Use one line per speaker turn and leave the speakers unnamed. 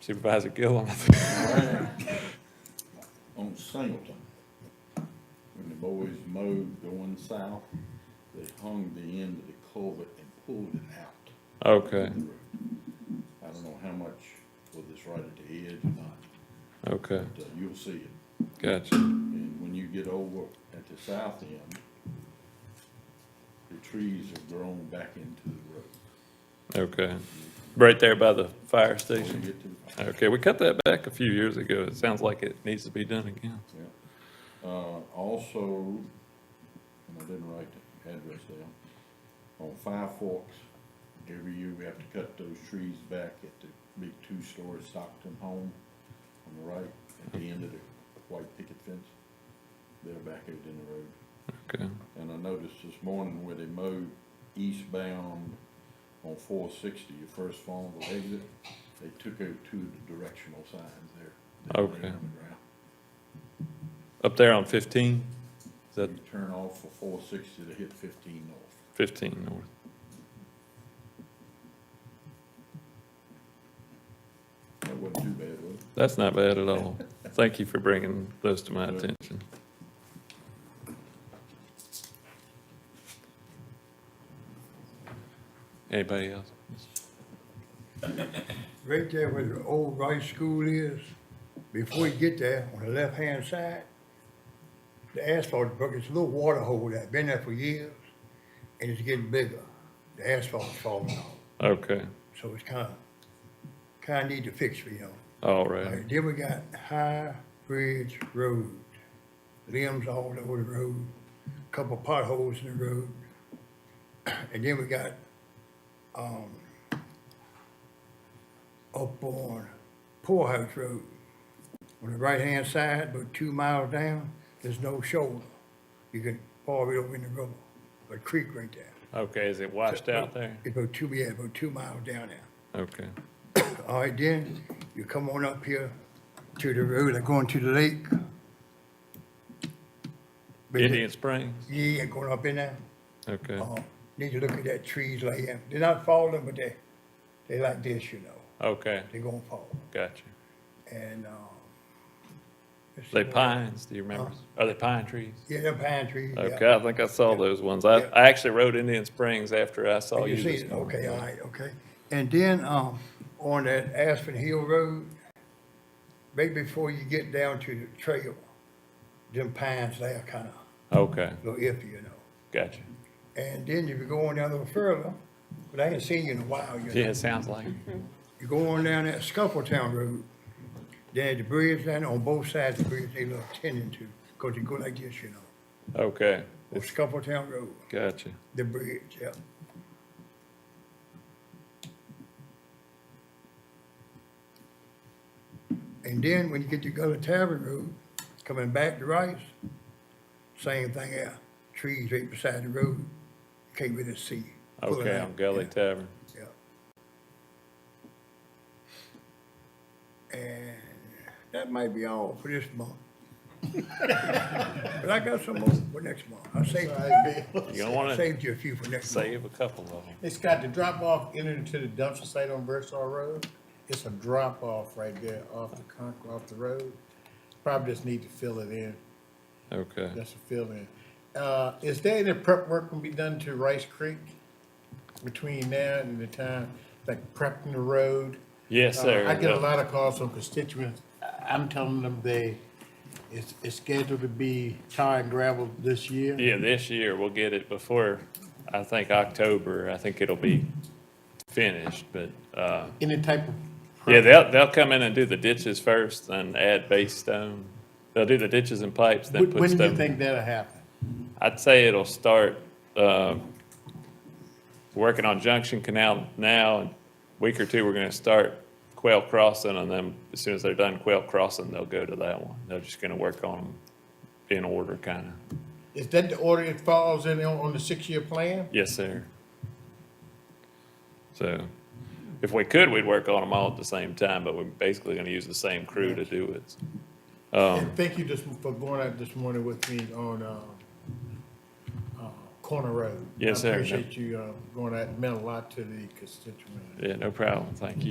Supervisor Gillum.
on Singleton, when the boys mowed going south, they hung the end of the culvert and pulled it out.
Okay,
of the road. I don't know how much, whether it's right at the edge or not,
okay,
but uh, you'll see it.
gotcha.
And when you get over at the south end, the trees have grown back into the road.
Okay. Right there by the fire
When you
station.
get to the-
Okay, we cut that back a few years ago. It sounds like it needs to be done again.
Yeah. Uh, also, and I didn't write the address down, on Five Forks, every year we have to cut those trees back at the big two-story Stockton home on the right, at the end of the white picket fence. They're back out in the road.
Okay,
And I noticed this morning where they mowed eastbound on four sixty, your first vulnerable exit, they took out two of the directional signs there. that were
Okay.
on the ground.
up there on 15? Is that
You turn off for four sixty to hit fifteen north.
15 north?
That wasn't too bad, was it?
That's not bad at all. Thank you for bringing those to my
Good.
attention. Anybody else?
Right there where the old Rice School is, before you get there, on the left-hand side, the asphalt broke, it's a little water hole that been there for years, and it's getting bigger. The asphalt's falling off,
Okay,
so it's kinda, kinda need to fix, you know.
all right,
Alright, Then we got High Bridge Road, limbs all over the road, couple potholes in the road. And then we got, um, up on Poorhouse Road, on the right-hand side, about two miles down, there's no shoulder. You can fall right over in the rubble, a creek right there.
okay, is it washed out there?
It's about two, yeah, about two miles down there.
Okay,
All right, then, you come on up here to the road, like going to the lake. But
Indian Springs,
the- Yeah, going up in there.
okay,
Uh, Need to look at that trees like, that. they're not falling, but they, they like this, you know,
okay,
they gonna fall.
gotcha.
And, um. let's see
They
what-
pines, do you remember? Are they pine trees?
Yeah, they're pine trees, Uh-huh. yeah.
Okay, I think I saw those ones. I,
Yeah. Oh,
I actually rode Indian Springs after I saw
You
you
see
this
it,
morning.
okay, all right, okay. And then, um, on that Aspen Hill Road, right before you get down to the trail, them pines there kinda
Okay,
a little iffy, you know.
gotcha.
And then if you go on down a little further, but I ain't seen you in a while, you
Yeah,
know.
it sounds like, it.
You go on down that Scuffletown Road, then the bridge down on both sides of the bridge, they look tending to, cause you go like this, you know,
okay,
on Scuffletown Road,
gotcha.
the bridge, yeah. And then when you get to Gully Tavern Road, coming back to Rice, same thing there, trees right beside the road, can't really see. Pulling
Okay,
out,
on Gully
yeah.
Tavern.
Yeah. And that might be all for this month. But I got some more for next month. I saved,
You don't want to
saved you a few for next month.
save a couple of them.
It's got the drop off entering to the dumpster site on Versal Road. It's a drop off right there off the con, off the road. Probably just need to fill it in,
Okay.
just to fill in. Uh, is there any prep work can be done to Rice Creek between now and the time, like prepping the road?
Yes, sir.
Uh, I get a lot of calls from constituents. I- I'm telling them they, it's, it's scheduled to be tar and gravel this year.
Yeah, this year we'll get it before, I think, October. I think it'll be finished, but, uh,
Any type of.
yeah, they'll, they'll come in and do the ditches first and add base stone. They'll do the ditches and pipes, then
When
put
when do you
stone.
think that'll happen?
I'd say it'll start, uh, working on Junction Canal now. In a Week or two, we're gonna start Quail Crossing and then as soon as they're done Quail Crossing, they'll go to that one. They're just gonna work on them in order kinda.
Is that the order it falls in on, on the six-year plan?
Yes, sir. So if we could, we'd work on them all at the same time, but we're basically going to use the same crew to do it. Um.
And thank you just for going out this morning with me on, uh, uh, Corner Road.
Yes, sir.
I appreciate you, uh, going out, It meant a lot to the constituent.
Yeah, no problem. Thank you.